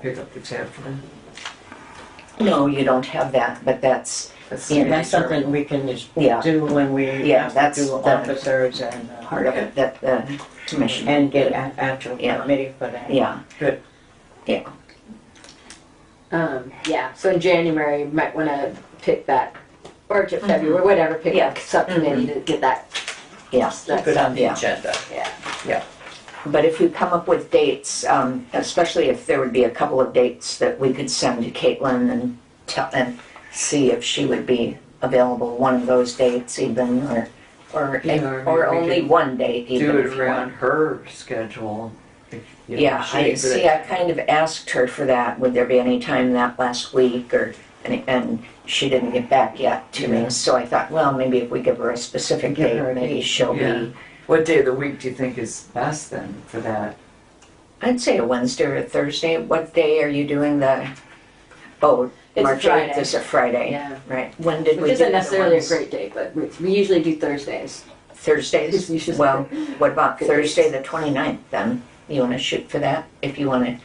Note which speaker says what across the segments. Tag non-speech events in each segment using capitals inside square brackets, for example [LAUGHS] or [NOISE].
Speaker 1: pickup this afternoon?
Speaker 2: No, you don't have that, but that's,
Speaker 1: That's
Speaker 2: Yeah,
Speaker 3: And that's
Speaker 1: the answer.
Speaker 3: something we can just
Speaker 2: yeah,
Speaker 3: do when we
Speaker 2: Yeah,
Speaker 3: have to
Speaker 2: that's
Speaker 3: do
Speaker 2: the-
Speaker 3: officers and, uh,
Speaker 2: part of it, that the commission.
Speaker 3: and get an actual
Speaker 2: Yeah.
Speaker 3: committee for that.
Speaker 2: Yeah,
Speaker 4: Um, yeah, so in January, you might want to pick that, or to February, whatever, pick
Speaker 2: Yeah.
Speaker 4: a subcommittee to get that.
Speaker 2: yeah.
Speaker 4: that
Speaker 1: Good.
Speaker 4: done.
Speaker 2: Yeah.
Speaker 1: agenda.
Speaker 2: But if you come up with dates, um, especially if there would be a couple of dates that we could send to Caitlin and tell, and see if she would be available one of those dates even, or, or,
Speaker 1: Yeah, or maybe
Speaker 2: or
Speaker 1: we
Speaker 2: only
Speaker 1: could
Speaker 2: one date even
Speaker 1: Do
Speaker 2: if
Speaker 1: it
Speaker 2: you want.
Speaker 1: around her schedule. if, you know,
Speaker 2: Yeah,
Speaker 1: she-
Speaker 2: I,
Speaker 1: but
Speaker 2: see, I kind of asked her for that, would there be any time that last week, or, and, and she didn't get back yet to
Speaker 1: Yeah.
Speaker 2: me, so I thought, well, maybe if we give her a specific
Speaker 3: Give
Speaker 2: date,
Speaker 3: her a
Speaker 2: maybe
Speaker 3: date.
Speaker 2: she'll
Speaker 1: Yeah.
Speaker 2: be,
Speaker 1: What day of the week do you think is best then for that?
Speaker 2: I'd say a Wednesday or a Thursday, what day are you doing the, oh,
Speaker 4: It's a
Speaker 2: March eighth
Speaker 4: Friday.
Speaker 2: is a Friday,
Speaker 4: Yeah,
Speaker 2: right, when did we
Speaker 4: which
Speaker 2: do the
Speaker 4: isn't
Speaker 2: other
Speaker 4: necessarily a
Speaker 2: ones?
Speaker 4: great day, but we we usually do Thursdays. [LAUGHS] It's usually-
Speaker 2: Thursdays, well, what about
Speaker 4: Good
Speaker 2: Thursday
Speaker 4: dates.
Speaker 2: the 29th then? You wanna shoot for that, if you wanna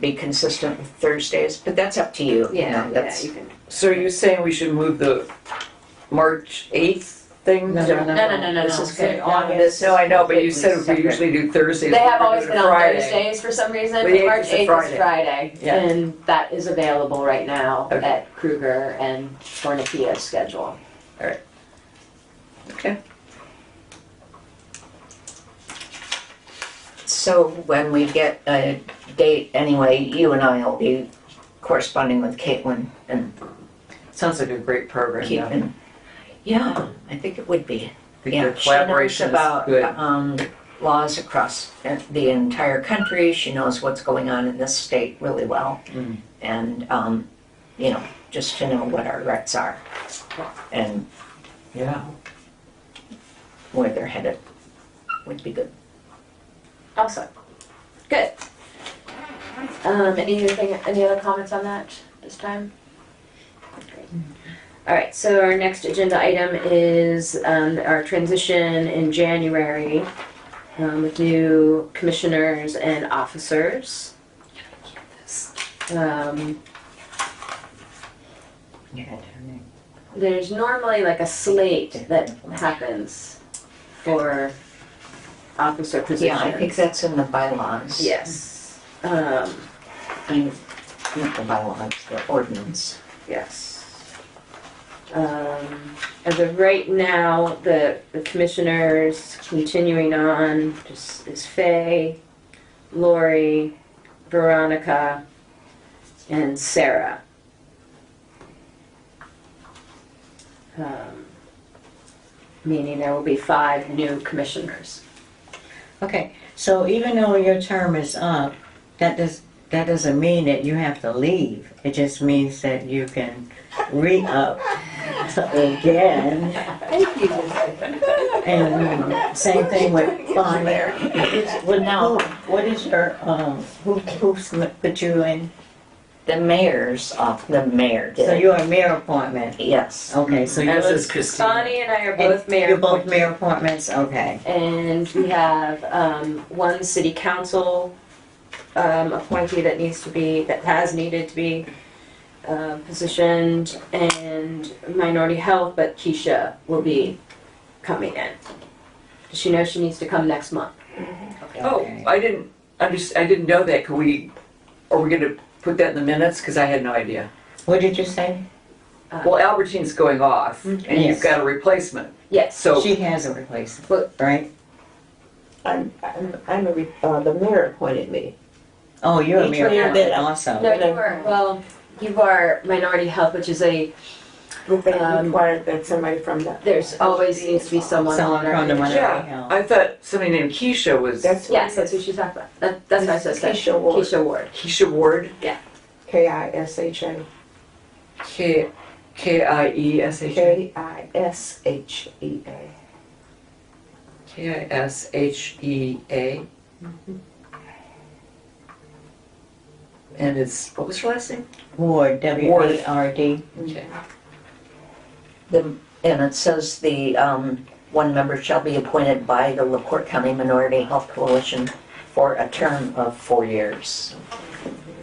Speaker 2: be consistent with Thursdays, but that's up to you, you
Speaker 4: Yeah,
Speaker 2: know,
Speaker 4: yeah,
Speaker 2: that's.
Speaker 4: you can.
Speaker 1: So you're saying we should move the March eighth thing?
Speaker 3: No, no, no.
Speaker 2: This is good.
Speaker 4: August.
Speaker 1: No, I know, but you said we usually do Thursdays.
Speaker 4: They have
Speaker 1: we're
Speaker 4: always
Speaker 1: doing
Speaker 4: been on
Speaker 1: Friday.
Speaker 4: Thursdays for some reason,
Speaker 1: The
Speaker 4: but
Speaker 1: 8th
Speaker 4: March
Speaker 1: is a
Speaker 4: 8th is Friday.
Speaker 1: Yeah.
Speaker 4: And that is available right now
Speaker 1: Okay.
Speaker 4: at Kruger and Fornapia's schedule.
Speaker 1: Okay.
Speaker 2: So when we get a date anyway, you and I will be corresponding with Caitlin and
Speaker 1: Sounds like a great program. though. I
Speaker 2: keeping. Yeah, I think it would be.
Speaker 1: think
Speaker 2: Yeah,
Speaker 1: the collaboration
Speaker 2: she knows
Speaker 1: is good.
Speaker 2: about um, laws across the entire country. She knows what's going on in this state really well,
Speaker 1: Mm.
Speaker 2: and um, you know, just to know what our rights are and
Speaker 1: Yeah.
Speaker 2: where they're headed would be good.
Speaker 4: Awesome. Good. Um, anything, any other comments on that this time? Great. All right, so our next agenda item is, um, our transition in January, um, with new commissioners and officers. Um, there's normally like a slate that happens for officer
Speaker 2: Yeah,
Speaker 4: positions.
Speaker 2: I think that's in the bylaws.
Speaker 4: Yes. Um,
Speaker 2: I- Not the bylaws, the ordinance.
Speaker 4: yes. Um, as of right now, the, the commissioners continuing on just is Faye, Lori, Veronica, and Sarah. Um, meaning there will be five new commissioners.
Speaker 3: Okay, so even though your term is up, that does, that doesn't mean that you have to leave. It just means that you can re-up again.
Speaker 4: Thank you.
Speaker 3: And um, same thing with Bonnie. Well, now, what is your, um, who, who's put you in?
Speaker 2: The mayor's off, the mayor
Speaker 3: So
Speaker 2: did,
Speaker 3: you're a mayor appointment.
Speaker 2: yes.
Speaker 3: Okay, so
Speaker 1: yours
Speaker 3: you're
Speaker 1: is Christine.
Speaker 4: Bonnie and I are both mayor.
Speaker 3: You're both
Speaker 4: appointees.
Speaker 3: mayor appointments, okay.
Speaker 4: And we have um, one city council um, appointee that needs to be, that has needed to be um, positioned, and minority health, but Keisha will be coming in. Does She knows she needs to come next month.
Speaker 1: Oh, I didn't, I just, I didn't know that. Can we, are we gonna put that in the minutes? Cause I had no idea.
Speaker 3: What did you say?
Speaker 1: Well, Albertine's going off and you've
Speaker 3: Yes.
Speaker 1: got a replacement.
Speaker 4: Yes,
Speaker 1: So
Speaker 3: She has a replacement,
Speaker 4: Well-
Speaker 3: right?
Speaker 5: I'm, I'm, I'm a, re- uh, the mayor appointed me.
Speaker 3: Oh, you're a
Speaker 5: Each
Speaker 3: mayor
Speaker 5: mayor
Speaker 3: appointment
Speaker 5: did.
Speaker 3: also.
Speaker 4: no, you are, well, you are minority health, which is a,
Speaker 5: But they
Speaker 4: Um,
Speaker 5: required that somebody from that.
Speaker 4: there's always needs to be someone
Speaker 3: Someone from
Speaker 4: on
Speaker 3: the
Speaker 4: our.
Speaker 3: minority
Speaker 1: Yeah,
Speaker 3: health.
Speaker 1: I thought somebody named Keisha was,
Speaker 5: That's what
Speaker 4: Yes,
Speaker 5: it
Speaker 4: that's
Speaker 5: is.
Speaker 4: who she's talking about. That- That's what I said.
Speaker 5: Keisha Ward.
Speaker 4: Keisha Ward.
Speaker 1: Keisha Ward,
Speaker 5: K I S H A.
Speaker 1: K, K I E S H A,
Speaker 5: K I S H E A.
Speaker 1: K I S H E A. And it's, what was her last name?
Speaker 3: Ward, W-A-R-D.
Speaker 1: Okay.
Speaker 2: The, and it says the, um, one member shall be appointed by the LaPorte County Minority Health Coalition for a term of four years.